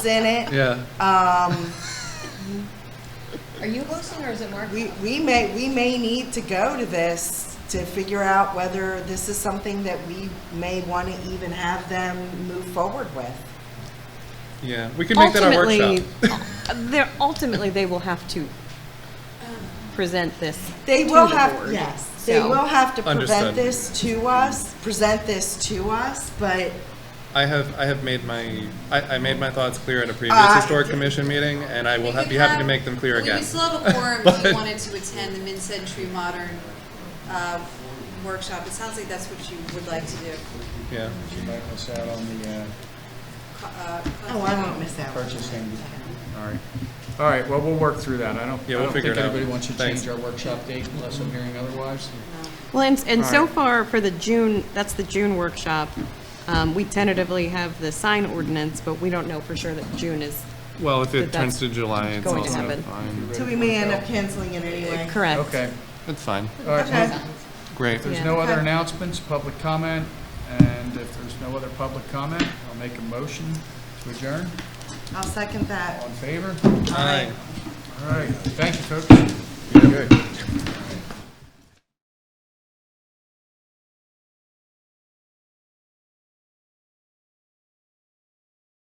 in it. Yeah. Um, Are you hosting or is it Mark? we, we may, we may need to go to this to figure out whether this is something that we may want to even have them move forward with. Yeah, we could make that our workshop. They're, ultimately, they will have to present this. They to will the have, board. yes, they So- will have to prevent Understood. this to us, present this to us, but I have, I have made my, I, I made my thoughts clear at a previous Uh, historic commission meeting, and I will We ha- could be happy to have- make them clear we- again. We still have a forum if But- you wanted to attend the mid-century modern uh, workshop. It sounds like that's what you would like to do. Yeah, You might miss out on the uh, Co- uh, Oh, I won't miss that one. purchasing. All right. All right, well, we'll work through that. I don't, I Yeah, we'll don't think figure it out. anybody wants to Thanks. change our workshop date unless I'm hearing otherwise. Well, and, and so Right. far for the June, that's the June workshop, um, we tentatively have the sign ordinance, but we don't know for sure that June is well, if But turns that's to July, it's going to also happen. fine. So we may end up canceling it anyway. correct. Okay, It's fine, all right. Okay. well, great. If there's Yeah. no other Okay. announcements, public comment, and if there's no other public comment, I'll make a motion to adjourn. I'll second that. All in favor? Aye. All right, thank you, folks. Good.